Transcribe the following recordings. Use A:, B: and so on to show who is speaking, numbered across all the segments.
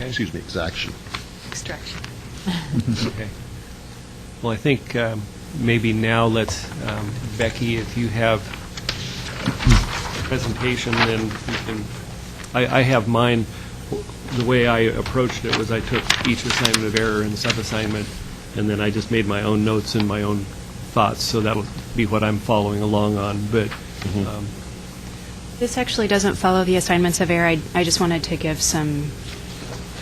A: Excuse me, exaction.
B: Extraction.
C: Okay. Well, I think um, maybe now let's, um, Becky, if you have a presentation, then you can, I I have mine, the way I approached it was I took each assignment of error and subassignment, and then I just made my own notes and my own thoughts, so that'll be what I'm following along on, but um,
D: This actually doesn't follow the assignments of error. I, I just wanted to give some,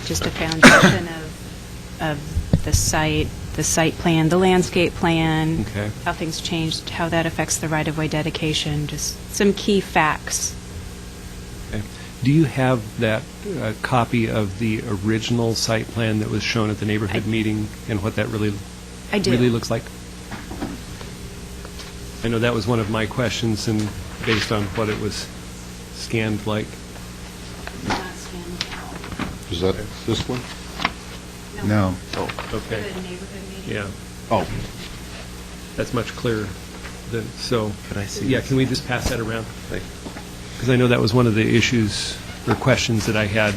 D: just a foundation of, of the site, the site plan, the landscape plan.
C: Okay.
D: How things changed, how that affects the right-of-way dedication, just some key facts.
C: okay. do you have that uh, copy of the original site plan that was shown at the neighborhood
D: I-
C: meeting, and what that really
D: I do.
C: really looks like? I know that was one of my questions, and based on what it was scanned like.
D: Not scanned.
A: Is that this one?
E: No.
D: The
C: Okay,
D: neighborhood meeting.
C: yeah,
A: Oh,
C: that's much clearer than, so.
E: Could I see
C: Yeah,
E: this?
C: can we just pass that around? Because I know that was one of the issues or questions that I had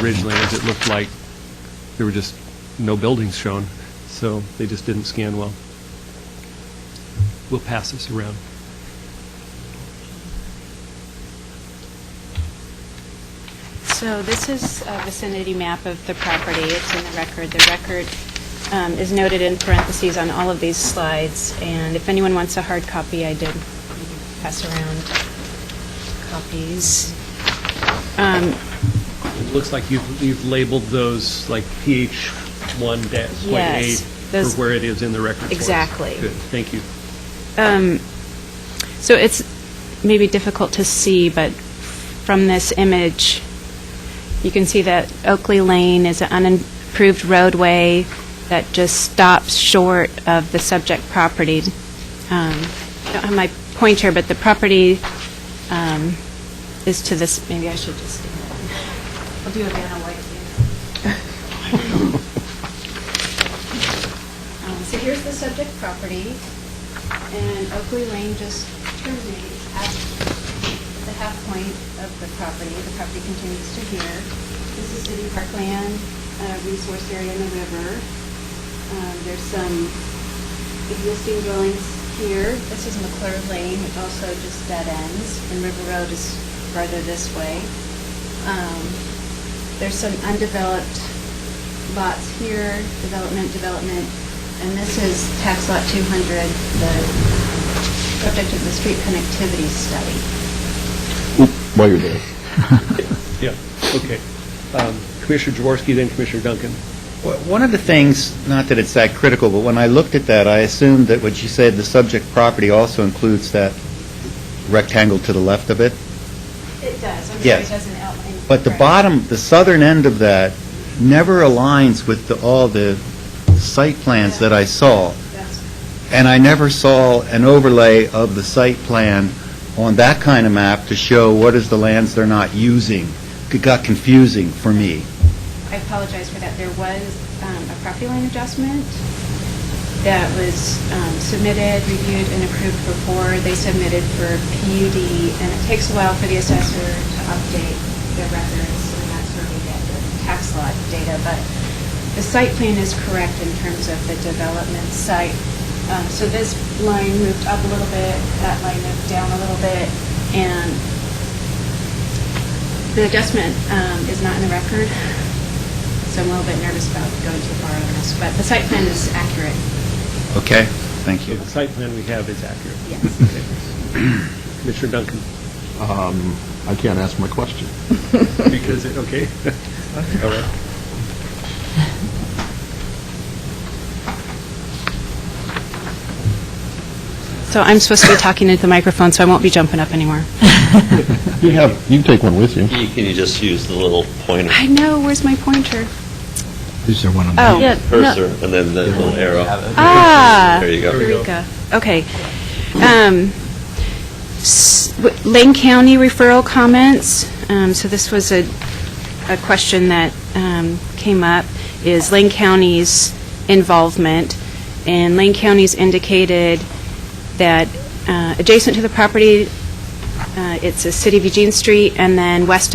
C: originally, is it looked like there were just no buildings shown, so they just didn't scan well. We'll pass this around.
D: So this is a vicinity map of the property. It's in the record. The record um, is noted in parentheses on all of these slides, and if anyone wants a hard copy, I did pass around copies. Um,
C: It looks like you've, you've labeled those like pH 1-.8
D: Yes, those-
C: for where it is in the record. for us.
D: Exactly.
C: Good, thank you.
D: um, So it's maybe difficult to see, but from this image, you can see that Oakley Lane is an unimproved roadway that just stops short of the subject property. Um, I don't have my pointer, but the property um, is to this, maybe I should just, I'll do a Vanna White here. Um, So here's the subject property, and Oakley Lane just terminates at the half point of the property. The property continues to here. This is city parkland, uh, resource area in the river. Um, There's some existing dwellings here. This is McClure Lane, which also just dead ends, and River Road is farther this way. Um, There's some undeveloped lots here, development, development, and this is tax lot 200, the subject of the street connectivity study.
A: Oop, while you're there.
C: Yeah, okay. Um, Commissioner Jaworski, then Commissioner Duncan.
E: Well, One of the things, not that it's that critical, but when I looked at that, I assumed that what you said, the subject property also includes that rectangle to the left of it.
D: It does. I'm sorry,
E: Yes.
D: it doesn't outline.
E: But the
D: correctly.
E: bottom, the southern end of that never aligns with the- all the site plans that I saw.
D: That's-
E: And I never saw an overlay of the site plan on that kind of map to show what is the lands they're not using. It got confusing for me.
D: I apologize for that. There was um, a property line adjustment that was um, submitted, reviewed, and approved before they submitted for PUD, and it takes a while for the assessor to update their records, and that's where we get the tax lot data. But the site plan is correct in terms of the development site. Um, So this line moved up a little bit, that line moved down a little bit, and the adjustment um, is not in the record, so I'm a little bit nervous about going too far on this, but the site plan is accurate,
E: Okay? Thank
C: So
E: you.
C: the site plan we have is accurate.
D: yes.
C: Okay. Commissioner Duncan,
A: Um, I can't ask my question.
C: because, it okay. All right.
D: So I'm supposed to be talking into the microphone, so I won't be jumping up anymore.
A: You have, you can take one with you.
F: You- Can you just use the little pointer
D: I know, where's my pointer?
E: Is there one on
D: Oh.
F: cursor and then the little arrow?
D: Ah.
F: There you go.
D: Eureka. Okay. Um, s- w- Lane County referral comments, Um, so this was a, a question that um, came up, is Lane County's involvement. And Lane County's indicated that uh, adjacent to the property, uh, it's a City of Eugene Street, and then west of